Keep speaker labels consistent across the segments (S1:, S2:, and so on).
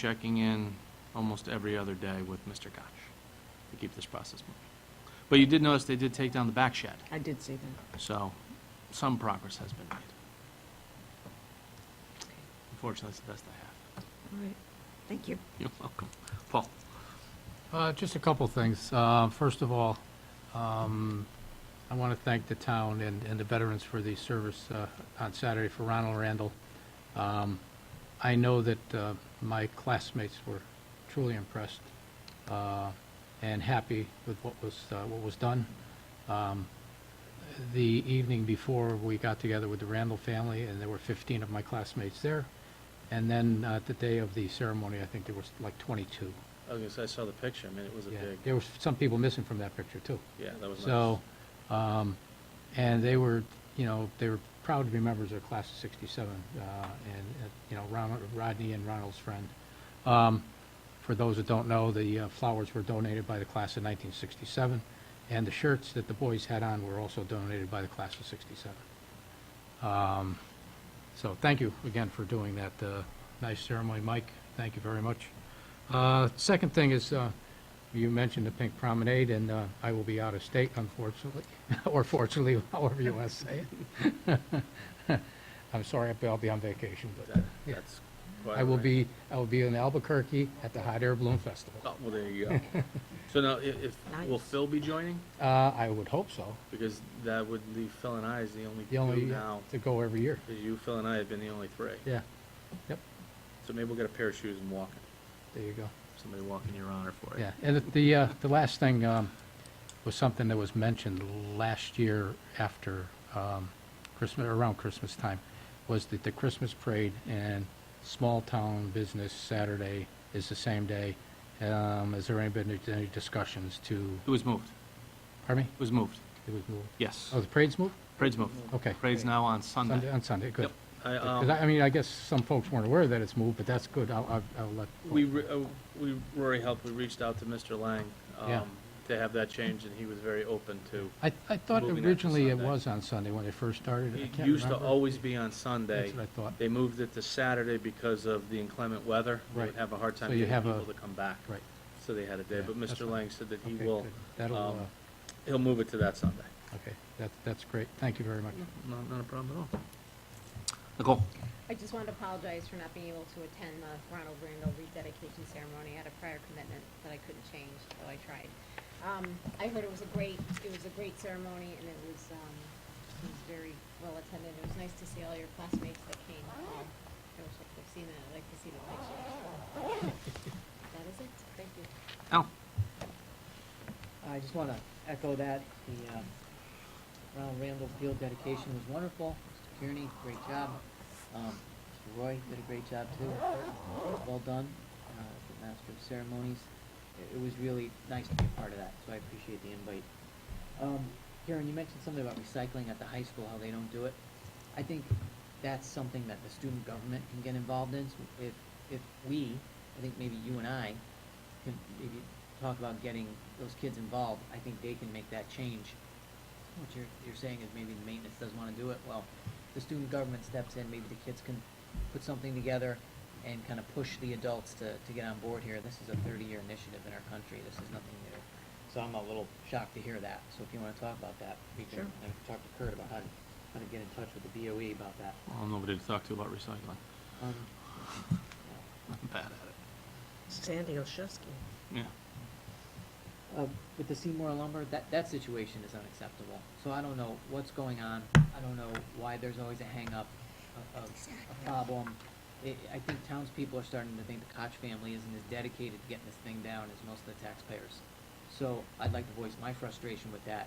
S1: checking in almost every other day with Mr. Koch to keep this process moving. But you did notice they did take down the back shed,
S2: I did see that.
S1: so some progress has been made. Unfortunately, it's the best I have.
S2: All right, thank you.
S1: You're welcome. Paul?
S3: Uh, Just a couple things. Uh, First of all, um, I want to thank the town and and the veterans for the service uh, on Saturday for Ronald Randall. Um, I know that uh, my classmates were truly impressed uh, and happy with what was, uh, what was done. Um, The evening before, we got together with the Randall family, and there were 15 of my classmates there. And then uh, the day of the ceremony, I think there was like 22.
S1: I was gonna say, I saw the picture, I mean, it was
S3: Yeah, there was some people missing from that picture too.
S1: yeah, that
S3: So, um, and they were, you know, they were proud to be members of class of sixty-seven, uh, and, uh, you know, Ronald, Rodney and Ronald's friend. Um, for those that don't know, the uh, flowers were donated by the class of nineteen sixty-seven, and the shirts that the boys had on were also donated by the class of sixty-seven. Um, so thank you again for doing that, uh, nice ceremony, Mike, thank you very much. Uh, Second thing is, uh, you mentioned the Pink Promenade, and uh, I will be out of state unfortunately, or fortunately, however you want to say it. I'm sorry, I'll be- I'll be on vacation, but
S1: That's.
S3: I will be, I will be in Albuquerque at the Hot Air Balloon Festival.
S1: well, there you go. So now, if,
S2: will Nice.
S1: Phil be joining?
S3: Uh, I would hope so,
S1: Because that would leave Phil and I as the only
S3: the only, to go every year,
S1: because you, Phil and I have been the only three.
S3: yeah, yep,
S1: So maybe we'll get a pair of shoes and walk it.
S3: there you go.
S1: Somebody walking your honor for it.
S3: Yeah, and the, uh, the last thing um, was something that was mentioned last year after um, Christmas, around Christmas time, was that the Christmas parade and small-town business Saturday is the same day. Um, Has there any been any discussions to,
S1: It was moved.
S3: pardon me?
S1: It was moved.
S3: It was moved.
S1: Yes.
S3: Oh, the parade's moved?
S1: Parade's moved.
S3: Okay.
S1: Parade's now on Sunday.
S3: On Sunday, good.
S1: Yep. I,
S3: 'Cause
S1: um,
S3: I I mean, I guess some folks weren't aware that it's moved, but that's good. I'll, I'll- I'll let.
S1: we, re- uh, we, Rory helped, we reached out to Mr. Lang,
S3: Yeah.
S1: um, to have that changed, and he was very open to.
S3: I, I thought
S1: Moving it to
S3: originally it
S1: Sunday.
S3: was on Sunday when they first started. I
S1: It
S3: can't
S1: used to
S3: remember.
S1: always be on Sunday.
S3: That's what I thought.
S1: They moved it to Saturday because of the inclement weather. They would
S3: Right.
S1: Have a hard time
S3: So you
S1: getting
S3: have a-
S1: people to come back.
S3: Right.
S1: So they had a day,
S3: Yeah,
S1: but
S3: that's
S1: Mr.
S3: fine.
S1: Lang said that he
S3: Okay,
S1: will,
S3: good. That'll,
S1: um,
S3: uh,
S1: he'll move it to that Sunday.
S3: okay, that, that's great. Thank you very much.
S1: Not, not a problem at all. Nicole?
S4: I just wanted to apologize for not being able to attend the Ronald Randall rededication ceremony. I had a prior commitment that I couldn't change, though I tried. Um, I heard it was a great, it was a great ceremony, and it was, um, it was very well attended. It was nice to see all your classmates that came. Um, I wish I could have seen that. I'd like to see the pictures. That is it. Thank you.
S1: Al?
S5: I just want to echo that. The um, Ronald Randall Field dedication was wonderful. Mr. Kearney, great job. Um, Mr. Roy did a great job too. Well done, uh, as the master of ceremonies. It- It was really nice to be a part of that, so I appreciate the invite. Um, Karen, you mentioned something about recycling at the high school, how they don't do it. I think that's something that the student government can get involved in. So If, if we, I think maybe you and I, can maybe talk about getting those kids involved, I think they can make that change. What you're, you're saying is maybe the maintenance doesn't wanna do it, well, the student government steps in, maybe the kids can put something together and kinda push the adults to, to get on board here. This is a thirty-year initiative in our country, this is nothing new. So I'm a little shocked to hear that, so if you wanna talk about that, we can,
S2: Sure.
S5: I talked to Kurt about how to, how to get in touch with the BOE about that.
S1: Well, nobody to talk to about recycling.
S5: Um,
S1: I'm bad at it.
S2: Sandy Oshowski.
S1: Yeah.
S5: Uh, with the Seymour lumber, that, that situation is unacceptable. So I don't know what's going on. I don't know why there's always a hang-up, a, a, a problem. I, I think townspeople are starting to think the Koch family isn't as dedicated to getting this thing down as most of the taxpayers. So I'd like to voice my frustration with that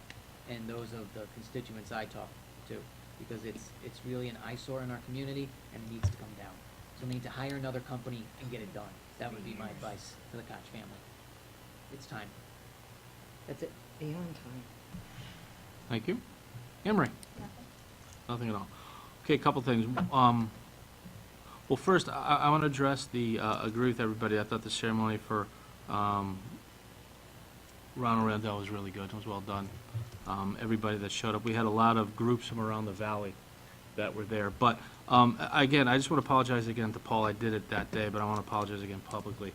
S5: and those of the constituents I talk to, because it's, it's really an eyesore in our community and it needs to come down. So we need to hire another company and get it done. That would be my advice to the Koch family. It's time. That's it.
S2: Beyond time.
S1: Thank you. Emery? Nothing at all. Okay, a couple things. Um, Well, first, I, I want to address the, uh, agree with everybody, I thought the ceremony for um, Ronald Randall was really good, it was well done. Um, Everybody that showed up, we had a lot of groups from around the valley that were there, but um, Um, a- again, I just want to apologize again to Paul. I did it that day, but I want to apologize again publicly.